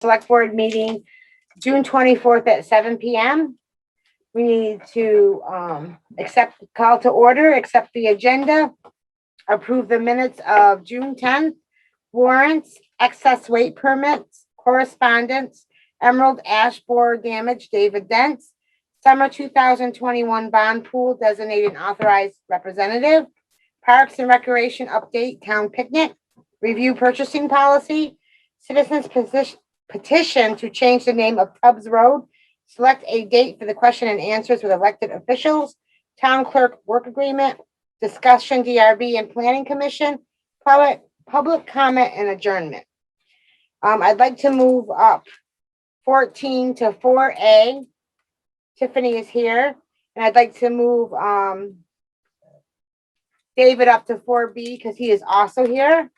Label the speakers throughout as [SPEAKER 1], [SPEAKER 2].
[SPEAKER 1] select board meeting, June twenty-fourth at seven PM. We need to, um, accept, call to order, accept the agenda, approve the minutes of June tenth, warrants, excess weight permits, correspondence, Emerald Ash Borer damage, David Dents, Summer two thousand twenty-one bond pool designated authorized representative, Parks and Recreation update, town picnic, review purchasing policy, citizens position, petition to change the name of Tubbs Road, select a date for the question and answers with elected officials, town clerk work agreement, discussion DRB and planning commission, public, public comment and adjournment. Um, I'd like to move up fourteen to four A. Tiffany is here, and I'd like to move, um, David up to four B because he is also here.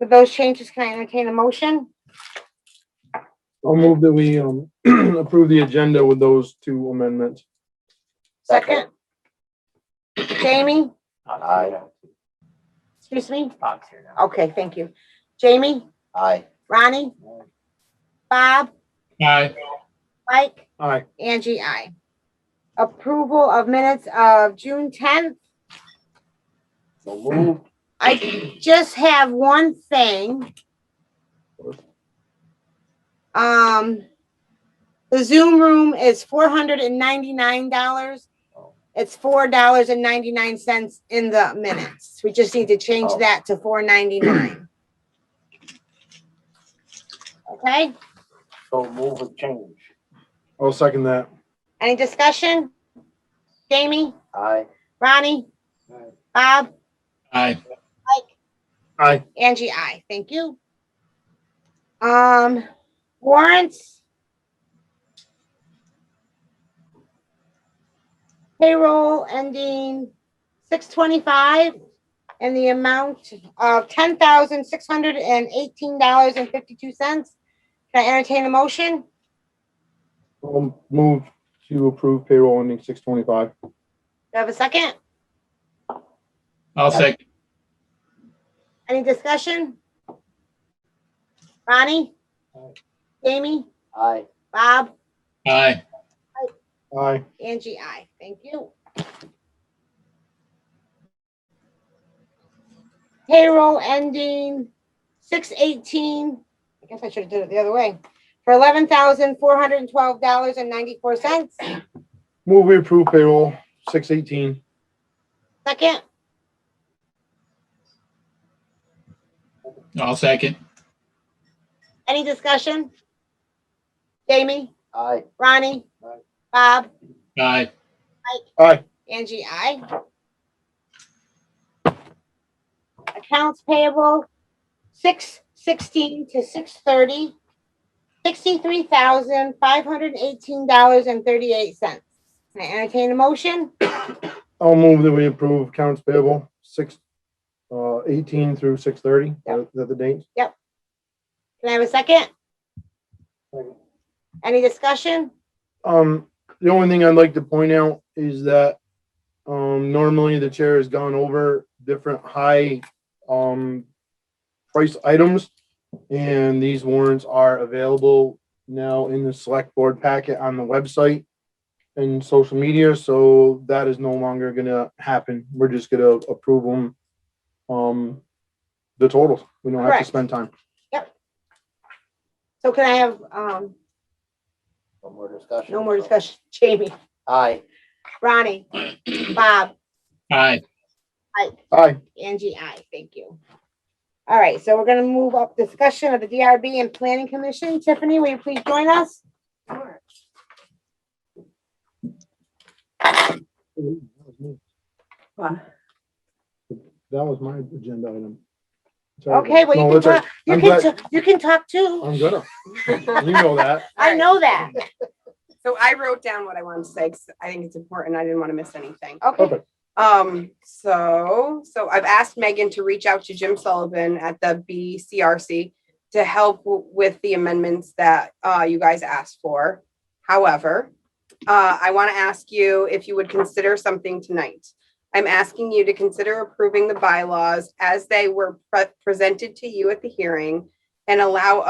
[SPEAKER 1] With those changes, can I entertain a motion?
[SPEAKER 2] I'll move that we um, approve the agenda with those two amendments.
[SPEAKER 1] Second. Jamie,
[SPEAKER 3] Aye.
[SPEAKER 1] excuse me?
[SPEAKER 3] Bob's here now.
[SPEAKER 1] Okay, thank you. Jamie,
[SPEAKER 3] Aye.
[SPEAKER 1] Ronnie, Bob,
[SPEAKER 2] Aye.
[SPEAKER 1] Mike,
[SPEAKER 2] Aye.
[SPEAKER 1] Angie, I. Approval of minutes of June tenth,
[SPEAKER 3] So move.
[SPEAKER 1] I just have one thing. Um, the Zoom room is four hundred and ninety-nine dollars. It's four dollars and ninety-nine cents in the minutes. We just need to change
[SPEAKER 3] Oh.
[SPEAKER 1] that to four ninety-nine. Okay,
[SPEAKER 3] So move and change.
[SPEAKER 2] I'll second that.
[SPEAKER 1] any discussion? Jamie,
[SPEAKER 3] Aye.
[SPEAKER 1] Ronnie,
[SPEAKER 3] Aye.
[SPEAKER 1] Bob,
[SPEAKER 4] Aye,
[SPEAKER 2] Aye.
[SPEAKER 1] Angie, I, thank you. Um, warrants. Payroll ending six twenty-five and the amount of ten thousand six hundred and eighteen dollars and fifty-two cents. Can I entertain a motion?
[SPEAKER 2] I'll move to approve payroll ending six twenty-five.
[SPEAKER 1] Do I have a second?
[SPEAKER 4] I'll second.
[SPEAKER 1] Any discussion? Ronnie?
[SPEAKER 3] Aye.
[SPEAKER 1] Jamie?
[SPEAKER 3] Aye.
[SPEAKER 1] Bob?
[SPEAKER 4] Aye,
[SPEAKER 2] Aye.
[SPEAKER 1] Angie, I. Thank you. Payroll ending six eighteen, I guess I should have did it the other way, for eleven thousand four hundred and twelve dollars and ninety-four cents.
[SPEAKER 2] Move we approve payroll six eighteen.
[SPEAKER 1] Second,
[SPEAKER 4] I'll second.
[SPEAKER 1] any discussion? Jamie,
[SPEAKER 3] Aye.
[SPEAKER 1] Ronnie,
[SPEAKER 3] Aye.
[SPEAKER 1] Bob,
[SPEAKER 4] Aye,
[SPEAKER 1] Angie, I. Accounts payable, six sixteen to six thirty, sixty-three thousand, five hundred and eighteen dollars and thirty-eight cents. Can I entertain a motion?
[SPEAKER 2] I'll move that we approve accounts payable six uh eighteen through six thirty. Is that the date?
[SPEAKER 1] Can I have a second?
[SPEAKER 3] Second.
[SPEAKER 1] Any discussion?
[SPEAKER 2] Um, the only thing I'd like to point out is that, um, normally the chair has gone over different high, um, price items. And these warrants are available now in the select board packet on the website and social media, so that is no longer gonna happen. We're just gonna approve them. Um, the totals. We don't have to
[SPEAKER 1] Correct.
[SPEAKER 2] spend time.
[SPEAKER 1] So can I have, um,
[SPEAKER 3] No more discussion.
[SPEAKER 1] no more discussion? Jamie,
[SPEAKER 3] Aye.
[SPEAKER 1] Ronnie, Bob,
[SPEAKER 4] aye,
[SPEAKER 2] Aye,
[SPEAKER 1] Angie, I, thank you. All right, so we're gonna move up discussion of the DRB and Planning Commission. Tiffany, will you please join us?
[SPEAKER 2] that was my agenda item. Sorry.
[SPEAKER 1] Okay, well,
[SPEAKER 2] No,
[SPEAKER 1] you can
[SPEAKER 2] that's all right.
[SPEAKER 1] talk, you
[SPEAKER 2] I'm
[SPEAKER 1] can,
[SPEAKER 2] glad-
[SPEAKER 1] t- you can talk too.
[SPEAKER 2] I'm gonna. You know that.
[SPEAKER 1] I know that.
[SPEAKER 5] So I wrote down what I wanted to say, 'cause I think it's important. I didn't want to miss anything.
[SPEAKER 1] Okay,
[SPEAKER 2] Perfect.
[SPEAKER 5] Um, so, so I've asked Megan to reach out to Jim Sullivan at the BCRC to help w- with the amendments that, uh, you guys asked for. However, uh, I want to ask you if you would consider something tonight. I'm asking you to consider approving the bylaws as they were pre- presented to you at the hearing and allow